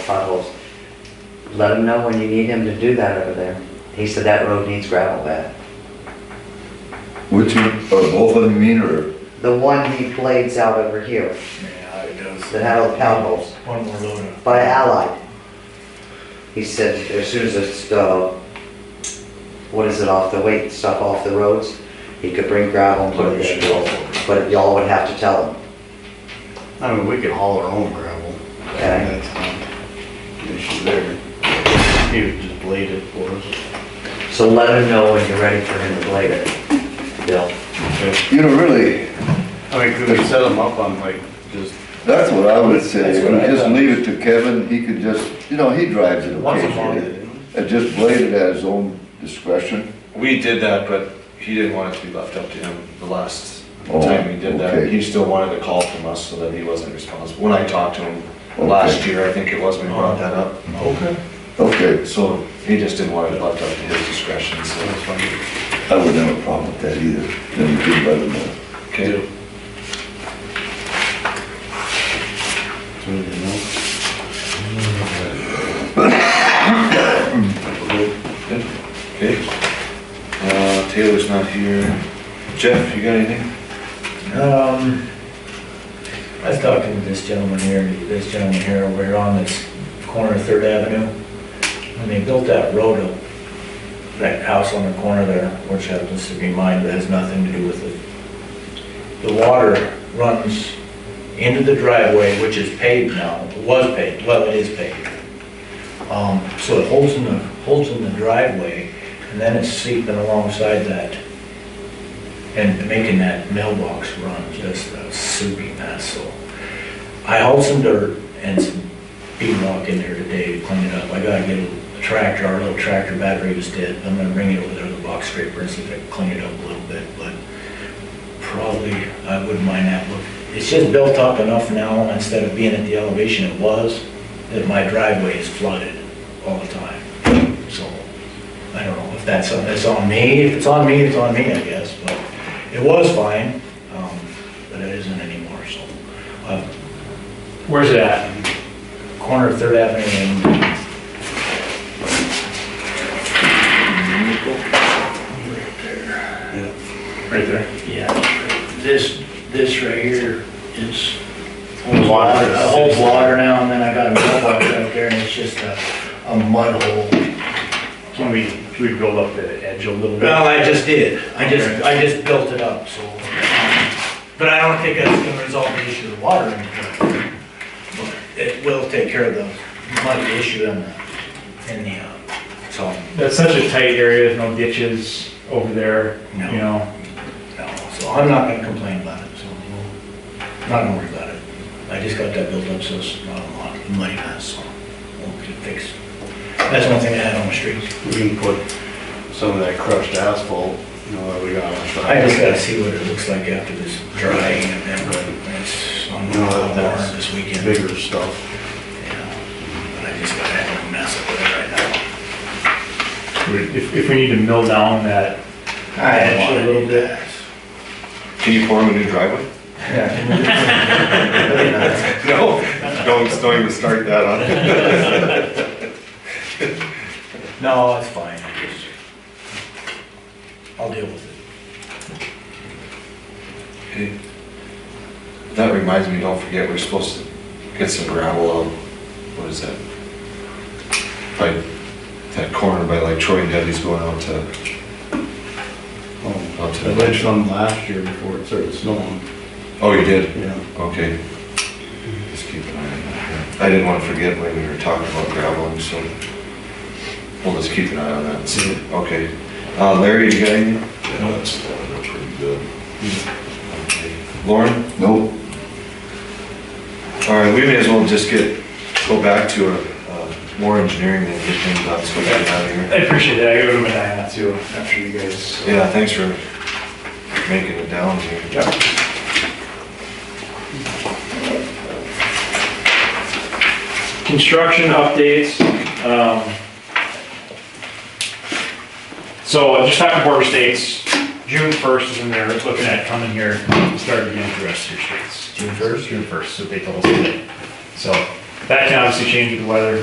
potholes. Let him know when you need him to do that over there. He said that road needs gravel bed. Which, one- are both of them mean, or The one he blades out over here, Yeah, it does. that had all the pound holes, One more load. by Allied. He said, as soon as it's, uh, what is it, off the weight stuff off the roads, he could bring gravel and put it there. But y'all would have to tell him. I mean, we could haul our own gravel. Okay. That's not an issue there. He would just blade it for us. So let him know when you're ready for him to blade it, Bill. you know, really, I mean, could we set them up on like, just, that's what I would say. That's what I Just thought. leave it to Kevin, he could just, you know, he drives it Once a month. occasionally. And just blade it at his own discretion. We did that, but he didn't want it to be left up to him the last Oh, time we did that. okay. He still wanted a call from us so that he wasn't responsible. When I talked to him Okay. last Uh-huh. year, I think it was, we brought that up. Okay. Okay, So he just didn't want it left up to his discretion, so. that's fine. I wouldn't have a problem with that either. Then you could let him know. Okay. So, you know, Okay. Uh, Taylor's not here. Jeff, you got anything? Um, I was talking to this gentleman here, this gentleman here, we're on this corner of Third Avenue. When they built that road up, that house on the corner there, which happens to be mine, but has nothing to do with it. The water runs into the driveway, which is paved now, was paved, well, it is paved. Um, so it holds in the, holds in the driveway, and then it's seeping alongside that and making that mailbox run just a soupy mess, so. I hauled some dirt and some bead rock in there today to clean it up. I gotta get a tractor, our little tractor battery was dead, I'm gonna bring it over there to the box scraper and see if I can clean it up a little bit, but probably, I wouldn't mind that look. It's just built up enough now, instead of being at the elevation it was, that my driveway is flooded all the time, so. I don't know if that's, on- that's on me, if it's on me, it's on me, I guess, but it was fine, um, but it isn't anymore, so. uh, Where's it at? Corner of Third Avenue and, Right there. Yeah, this, this right here is, Holds water. it holds water now, and then I got a mailbox up there, and it's just a, a mud hole. Can we, can we build up the edge a little bit? well, I just did, I just, I just built it up, so, um, but I don't think that's gonna resolve the issue of water in the but It will take care of the mud issue and the, and the, uh, so, That's such a tight area, there's no ditches over there, you No. know? no, so I'm not gonna complain about it, so. we'll- Not gonna worry about it. I just got that built up, so it's not a lot of money, so we'll get it fixed. That's one thing I had on the streets. We can put some of that crushed asphalt, you know, that we got on. side. I just gotta see what it looks like after this drying and then, but it's on the You know, warrant that's this weekend. Yeah, bigger stuff. But I just gotta have a mess up with it right now. If, if we need to mill down that, I actually a little bit. Can you form a new driveway? No, don't, don't even start that on. No, it's fine, I just, I'll deal with it. Hey, That reminds me, don't forget, we're supposed to get some gravel out, what is that? By that corner by like Troy and Debbie's going out to, Oh, out I to. did some last year before it started snowing, Oh, you did? yeah. Okay. Just keep an eye on that. yeah. I didn't want to forget when we were talking about graveling, so we'll just keep an eye on that and see. Okay. Uh, Larry, you got anything? Yeah, that's, that's pretty good. Lauren? Nope. All right, we may as well just get, go back to a, uh, more engineering and get things done, so we can out of here. I appreciate that, I go to Medina too, after you guys. Yeah, thanks for making it down here. Yep. Construction updates. um, So just talking border states, June 1st is when they're looking at coming here and starting to get the rest of your states. June 1st? June 1st, so they told us today. So that can obviously change with the weather.